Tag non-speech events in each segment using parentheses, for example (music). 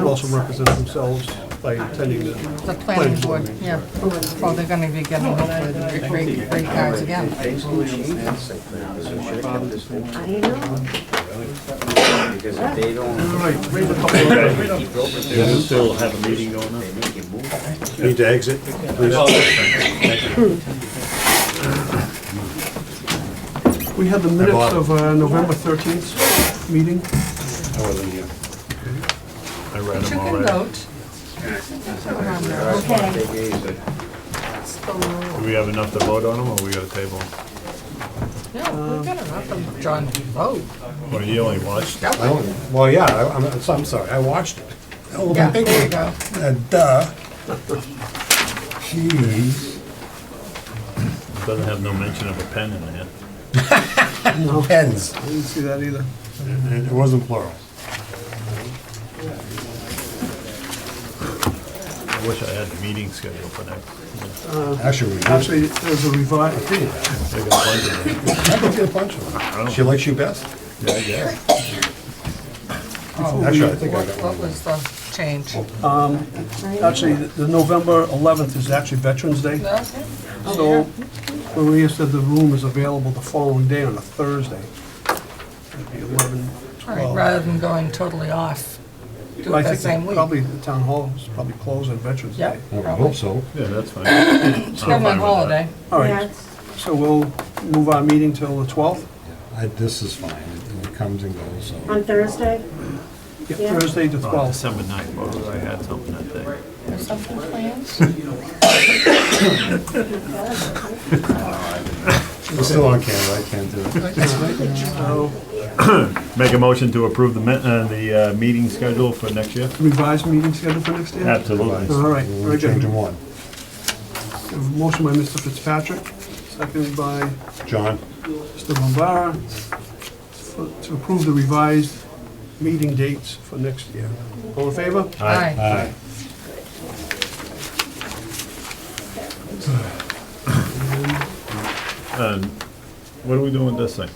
also represent themselves by attending the The planning board, yeah. Oh, they're gonna be getting hopefully the great, great cards again. I know. Because if they don't, We still have a meeting going on. they make it move. Need to exit, please. We had the minutes of uh, November 13th meeting. I wasn't here. I read You them can already. vote. Okay. Do we have enough to vote on them, or we got a table? 'em? No, we're gonna have them, John, to vote. Well, you only watched. Yep. I only- Well, yeah, I- I'm, I'm sorry, I watched it. Oh, Yeah, my there you big- go. uh, Duh. Jeez. Doesn't have no mention of a pen in there. Pens. I didn't see that either. And It wasn't plural. I wish I had the meeting scheduled for next. Actually, we did. Actually, there's a revised, I got a bunch of them. I can get a bunch of them. She likes you best? Yeah, yeah. Actually, I think I What, got what one. was the change? actually, the November 11th is actually Veterans Day. So Maria said the room is available the following day on a Thursday. It'd be 11, All right, 12. rather than going totally off, do Well, I it that think same that week. probably the town hall is probably closed on Veterans Yep. Day. Well, I probably. hope so. Yeah, that's fine. I'm Still fine my with holiday. All right, so we'll move our meeting till the 12th. I, this is fine, It- it comes and goes, so. On Thursday? Yeah, Yeah. Thursday the that. On 12th. Oh, December ninth, what was I had something that day. There's something planned? It's still on camera, I can't do it. So Make a motion to approve the, min- uh, the, uh, meeting schedule for next year? revised meeting schedule for next year? Absolutely. All right, We're very good. changing one. Motion by Mr. Fitzpatrick, seconded by John, Mr. Bombara for- to approve the revised meeting dates for next year. All in favor? Aye. aye. Um, what are we doing with this thing?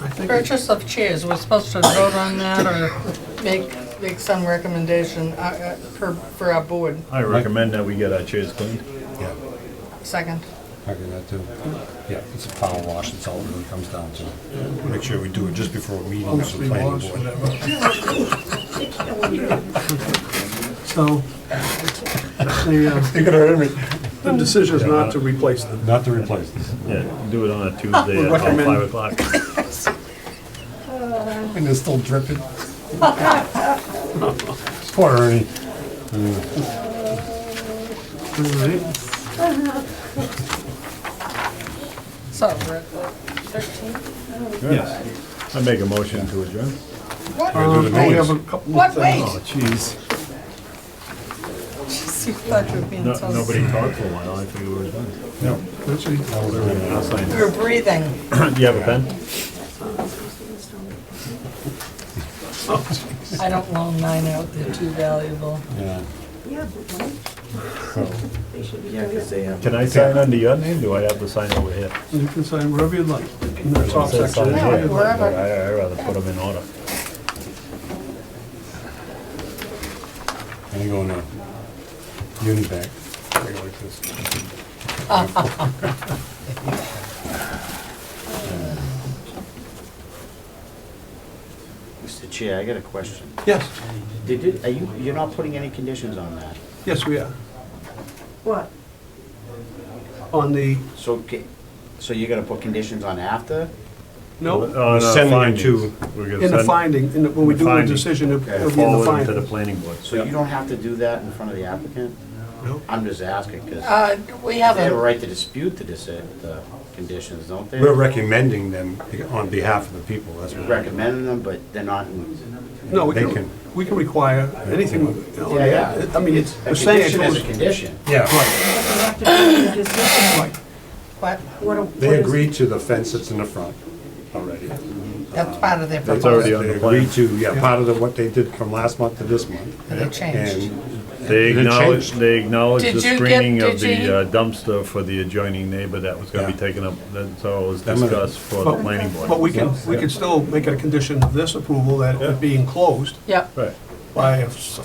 I think it's Purchase of chairs, we're supposed to vote on that or make, make some recommendation uh, uh, per, for our board. I recommend that we get our chairs cleaned. Yeah, Second. I can do that too. Yeah, it's a power wash, that's all it really comes down to. Make sure we do it just before a meeting of the mostly planning was, board. whatever. So, the, uh, You're gonna hurt me. the decision is not to replace them. Not to replace this. Yeah, do it (laughs) on a Tuesday at about Recommend. five o'clock. And it's still dripping. (laughs) Poor Ernie. All right, So we're at thirteen. Yes. I make a motion to adjourn. What? Do um, the we have names. a couple of What, wait? things. jeez. Jeez, you thought you were being so. Nobody talked for a while, I figured we were done. (clears throat) No, Actually, that was Ernie. I'll sign We it. were breathing. Do you have a pen? I don't loan mine out, they're too valuable. Yeah. Yeah, but why? So, They should be Yeah, doing it. because they have. Can I sign under your name? Do I have to sign over here? You can sign wherever you'd like, in the top Says sign section. here, but wherever. I- I'd rather put them in order. I'm going to Univac. I go like this. Mr. Chair, I got a question. Yes, Did it, are you, you're not putting any conditions on that? yes, we are. What? On the, So, ca- so you're gonna put conditions on after? no, On our findings. in the finding, in the- when we do the Finding. decision, it'll it'll be in the Forward to the finding. planning board. So you don't have to do that in front of the applicant? No. I'm just asking, because Uh, we they have a haven't, right to dispute the, dis- the conditions, don't they? We're recommending them on behalf of the people, that's what. we're- Recommending them, but they're not, in- No, we They can, can- we can require anything. on yeah, yeah. that. Oh, I mean, it's, A the condition sanction is is, a condition. Yeah, right, They have to make a decision. right. what, What a- what they is- agreed to the fence that's in the front already. that's part of their They- proposal. already on the they plan. Agreed to, yeah, part of the- what they did from last month to this month. And they changed. And They Did it acknowledge, change? they acknowledge Did the you get- screening of did you- the uh, dumpster for the adjoining neighbor that was gonna be Yeah. taken up, that's all was Them and- discussed for the planning board. But we can, we can still make it a condition of this approval that it be enclosed Yep. Right. by a s-